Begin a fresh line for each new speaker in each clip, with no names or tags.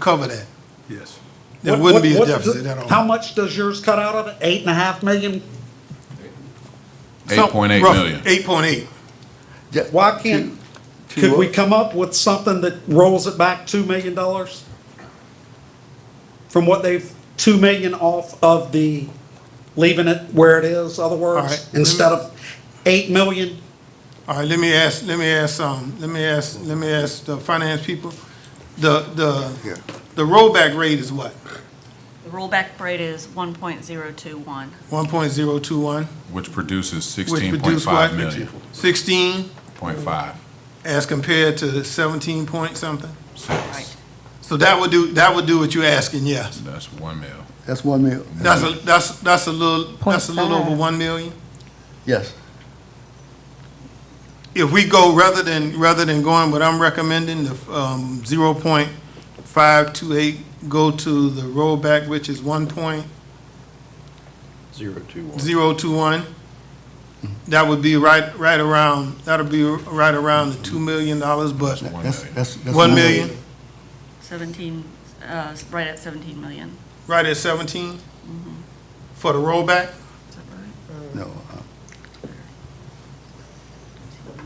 cover that.
Yes.
There
What-
wouldn't
what-
be a
what's
deficit
the-
at all.
How much does yours cut out of it? Eight and a half million?
Some-
8.8
roughly,
million.
8.8.
Why can't, could we come up with something that rolls it back two million dollars? From what they've, two million off of the, leaving it where it is, other
right.
words, instead of eight million?
All right, let me ask, let me ask, um, let me ask, let me ask the finance people. The, the, the rollback rate is what?
The rollback rate is 1.021.
1.021,
which produces
which
sixteen point
produced
five
what?
million,
16
point five.
as compared to 17 point something?
Right.
So that would do, that would do what you're asking, yes.
That's one mil.
That's one mil,
That's
Mm-hmm.
a, that's, that's a little, that's a little over 1 million.
yes.
if we go rather than, rather than going what I'm recommending, the, um, zero point five two eight, go to the rollback, which is one point
Zero two one.
zero two one. That would be right, right around, that'll be right around the two million dollars, but
One
That's,
million.
that's. that's
one million,
17, uh, right at 17 million.
right at seventeen for the rollback?
Is that right?
No. uh,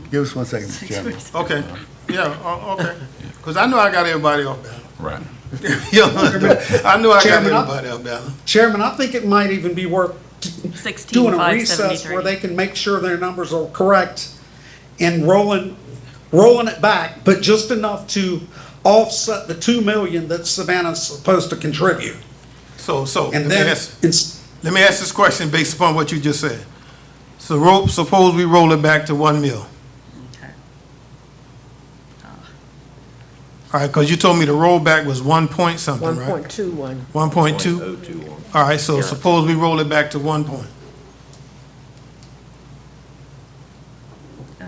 Give us one second, Mr.
Six
Chairman.
percent.
Okay, yeah, o- okay. Cause I know I got everybody off balance.
Right.
You know, I know I got
Chairman, I-
everybody off balance.
Chairman, I think it might even be worth doing a recess where
16,573.
they can make sure their numbers are correct and rolling, rolling it back, but just enough to offset the two million that Savannah's supposed to contribute.
So, so. let
And
me
then,
ask-
it's-
Let me ask this question based upon what you just said. So ro- suppose we roll it back to one mil, all
Okay.
right, because you told me the rollback was one point something,
One
right?
point two one.
One point oh two? All right, so suppose we roll it back to one point.
Oh.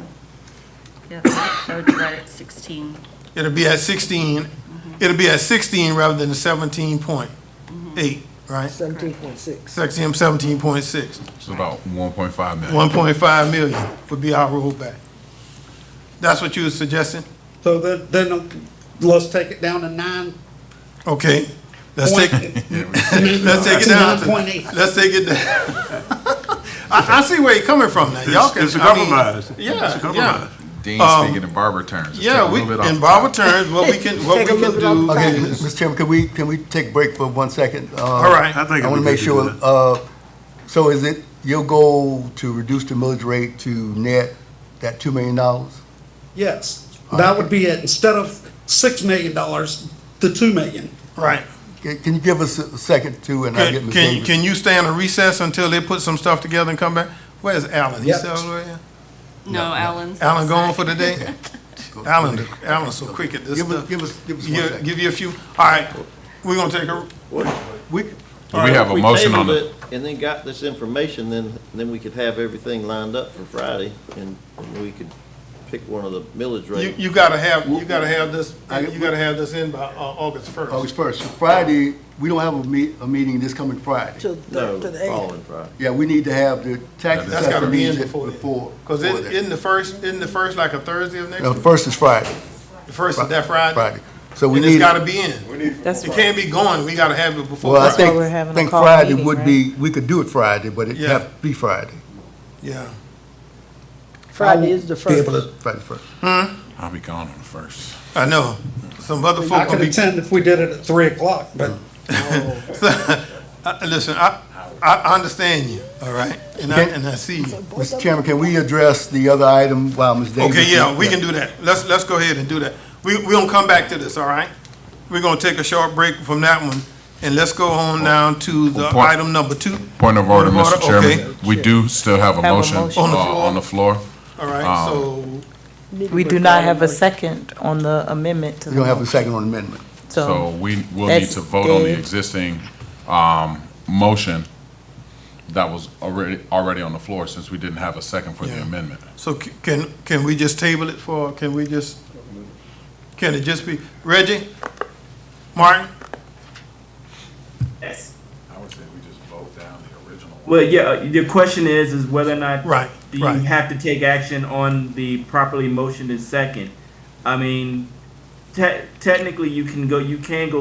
Yeah, that would be right at 16.
It'll be at sixteen, it'll be at sixteen rather than the seventeen point eight, right?
Seventeen point six.
Sexy seventeen point six.
It's about one point five million.
One point five million would be our rollback. That's what you were suggesting?
so then, then let's take it down to nine
Okay, let's
point.
take, Let's take it down. to-
9.8.
Let's take it down. I, I see where you're coming from now. Y'all
It's-
can.
it's a
I mean,
compromise.
Yeah, yeah.
Dean's speaking in barber terms. Just take
Um, Yeah,
a
we,
little bit off
in
the
Barbara
top.
terms, what we can, what we
Take a
can
little
do
bit off
Okay,
is,
Mr. Chairman, could we, can we take a break for one second? Uh,
all right,
I want to make sure, uh, so is it your goal to reduce the millage rate to net that two million dollars?
Yes, that would be it. Instead of six million dollars, the two million.
right.
Can can you give us a second too, and I'll get
Can,
Ms.
can,
Davis?
can you stay on a recess until they put some stuff together and come back? Where's Alan? He's
Yep.
still over here?
No, Alan's.
Alan gone for the day? Alan, Alan's so quick at this
Give us,
stuff.
give us, give us one
Yeah,
second.
Give you a few, all right, we're gonna take a,
We,
But We have a motion on
it,
the,
And then got this information, then, then we could have everything lined up for Friday, and and we could pick one of the millage
you,
rates.
you gotta have, you gotta have this,
I-
you gotta have this in by, uh, August first.
August oh, first, Friday, we don't have a meet, a meeting this coming Friday.
To, the-
No,
to the eight.
following Friday.
Yeah, we need to have the tax
That's
That's gotta
assessor
be in
meeting
before
before.
then. Cause
before
it,
that.
isn't the first, isn't the first like a Thursday of next
No,
week?
the first is Friday,
The first is that Friday?
Friday. So we
And it's
need,
gotta be in.
That's
It can't be going, we gotta have it before
well, I
That's why
Friday.
think,
we're having a
think
call
Friday
meeting,
would
right?
be, we could do it Friday, but it'd
Yeah.
have to be Friday.
Yeah.
Friday is the
Be
first.
able to- Friday first.
I'll be gone on the first.
I know. Some other
I
folk will
could
be,
attend if we did it at three o'clock, but
I- listen, I, I, I understand you, all right? And I,
Okay.
and I see you.
Mr. Chairman, can we address the other item while Ms. Davis?
Okay, yeah, we can do that. Let's, let's go ahead and do that. We, we gonna come back to this, all right? We're gonna take a short break from that one, and let's go on down to the
Point-
item number two,
Point of order, Mr.
okay.
Chairman. We do still have a
Have a
motion
motion.
On the
uh,
floor.
on the floor.
all
Um,
right? So,
We do not have a second on the amendment to
We don't have
the,
a second on amendment.
So
so
we will need
that's
to vote on the
dead.
existing, um, motion that was already, already on the floor since we didn't have a second for the
Yeah.
amendment.
so c- can, can we just table it for, can we just, can it just be, Reggie? Martin?
I would say we just vote down the original.
Well, yeah, the question is, is whether or not
Right,
do you
right.
have to take action on the properly motioned and second. I mean, te- technically, you can go, you can go